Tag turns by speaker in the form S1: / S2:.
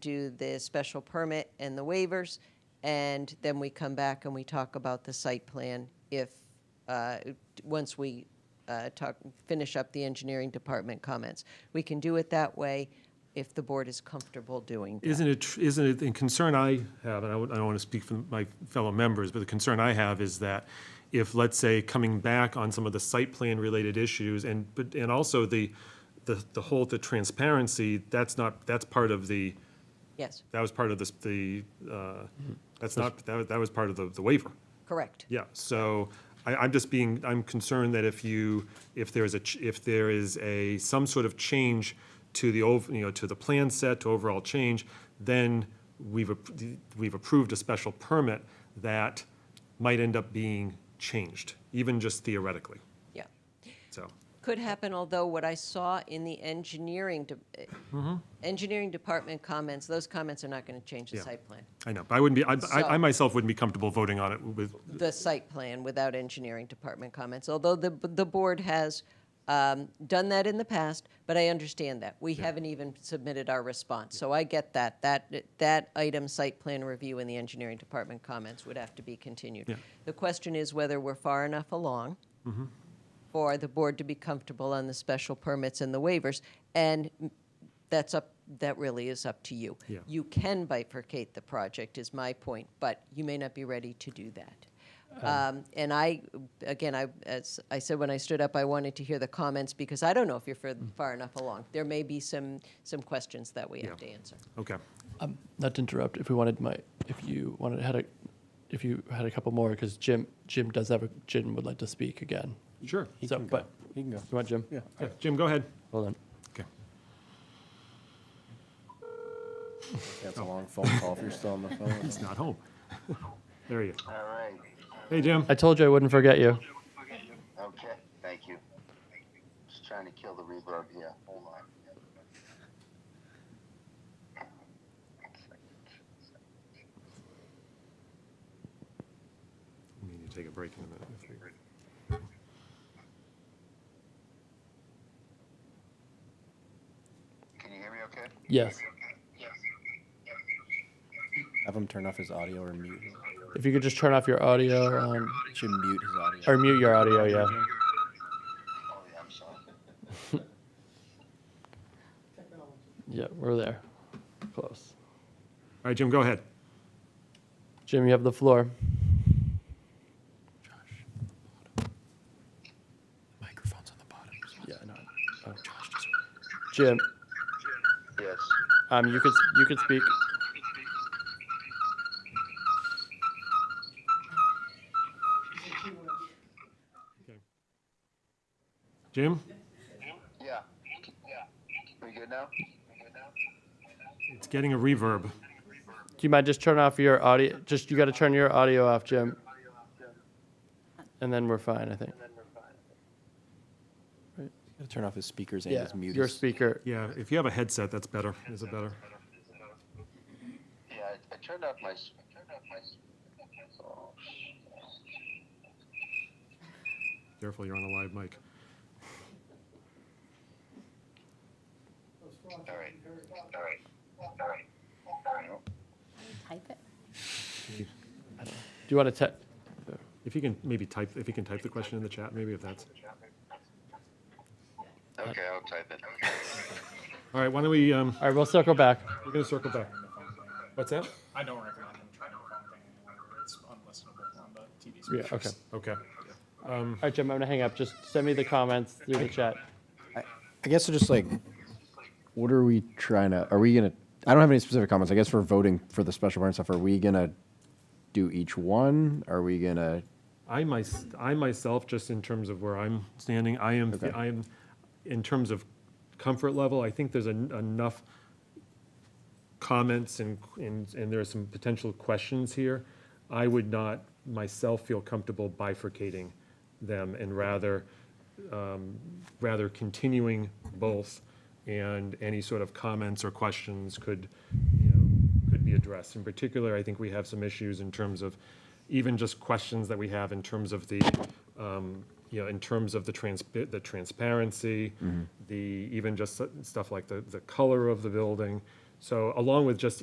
S1: do the special permit and the waivers, and then we come back and we talk about the site plan if, uh, once we uh, talk, finish up the engineering department comments. We can do it that way if the board is comfortable doing that.
S2: Isn't it, tr- isn't it, the concern I have, and I would- I don't want to speak for my fellow members, but the concern I have is that if, let's say, coming back on some of the site plan related issues and, but, and also the, the, the whole, the transparency, that's not, that's part of the,
S1: Yes,
S2: that was part of this, the, uh, that's not, that, was- that was part of the, the waiver.
S1: correct.
S2: Yeah, so I, I'm just being, I'm concerned that if you, if there's a, ch- if there is a, some sort of change to the, ov- you know, to the plan set, to overall change, then we've, ap- we've approved a special permit that might end up being changed, even just theoretically,
S1: Yeah.
S2: so.
S1: Could happen, although what I saw in the engineering, de- eh,
S2: Mm-hmm.
S1: engineering department comments, those comments are not going to change the
S2: Yeah.
S1: site plan.
S2: I know, but I wouldn't be, I- I, I
S1: So-
S2: myself wouldn't be comfortable voting on it with,
S1: the site plan without engineering department comments, although the, the board has um, done that in the past, but I understand that. We haven't even submitted our response, so I get that. That, that item, site plan review and the engineering department comments would have to be continued.
S2: Yeah.
S1: The question is whether we're far enough along for the board to be comfortable on the special permits and the waivers, and that's up, that really is up to you.
S2: Yeah.
S1: You can bifurcate the project, is my point, but you may not be ready to do that. Um, And I, again, I, as I said when I stood up, I wanted to hear the comments, because I don't know if you're fur-
S2: Mm.
S1: far enough along. There may be some, some questions that we have to
S2: Yeah.
S1: answer.
S2: okay.
S3: Um, not to interrupt, if we wanted my, if you wanted had a, if you had a couple more, because Jim Jim does have a Jim would like to speak again.
S2: Sure.
S3: so, but
S4: He can go.
S3: you want Jim?
S2: Yeah, Jim, go ahead.
S3: Hold on.
S2: Okay.
S4: That's
S3: Oh.
S4: a long phone call if you're still on the phone.
S2: He's not home. There you go.
S5: All right,
S2: Hey, Jim.
S3: I told you I wouldn't forget you.
S5: okay, thank you. Just trying to kill the reverb here, hold on.
S2: We need to take a break in a minute.
S5: Can you hear me okay?
S3: Yes.
S4: Have him turn off his audio or mute.
S3: If you could just turn off your audio um,
S4: Should mute his audio.
S3: or mute your audio, yeah.
S5: Oh, yeah, I'm sorry.
S3: Yeah, we're there. Close.
S2: All right, Jim, go ahead.
S3: Jim, you have the floor.
S4: Microphone's on the bottom.
S3: Yeah, no. Oh. Jim,
S5: Yes,
S3: um, you could you could speak.
S2: Jim?
S5: yeah. Yeah. We good now? We good now?
S2: It's getting a reverb.
S3: Do you mind just turn off your audio? Just you got to turn your audio off, Jim, and then we're fine. I think.
S4: Turn off his speakers and
S3: Yeah,
S4: his mute.
S3: your
S4: his-
S3: speaker.
S2: Yeah, if you have a headset, that's better. Is it better?
S5: Yeah, I, I turned off my, s- I turned off my. s- Oh, sh-
S2: Careful, you're on a live mic.
S5: All right, all right, all right.
S6: Type it.
S3: Do you want to te-
S2: If you can maybe type, if you can type the question in the chat, maybe if that's.
S5: Okay, I'll type it, okay.
S2: All right, why don't we, um,
S3: All right, we'll circle back.
S2: we're gonna circle back. What's that?
S7: I don't recommend him trying to phone thing anymore. It's unlistenable on the TV
S3: Yeah,
S7: speakers.
S3: okay. All
S2: Okay.
S3: right, Jim, I'm gonna hang up. Just send me the comments through the chat.
S4: I guess it's just like, what are we trying to? Are we gonna? I don't have any specific comments. I guess we're voting for the special permit stuff. Are we gonna do each one? Are we gonna?
S2: I my, I myself, just in terms of where I'm standing, I am,
S4: Okay.
S2: I am, in terms of comfort level, I think there's en- enough comments and, and, and there are some potential questions here. I would not myself feel comfortable bifurcating them and rather, um, rather continuing both. And any sort of comments or questions could, you know, could be addressed. In particular, I think we have some issues in terms of even just questions that we have in terms of the, um, you know, in terms of the trans, the transparency, the, even just stuff like the, the color of the building, So along with just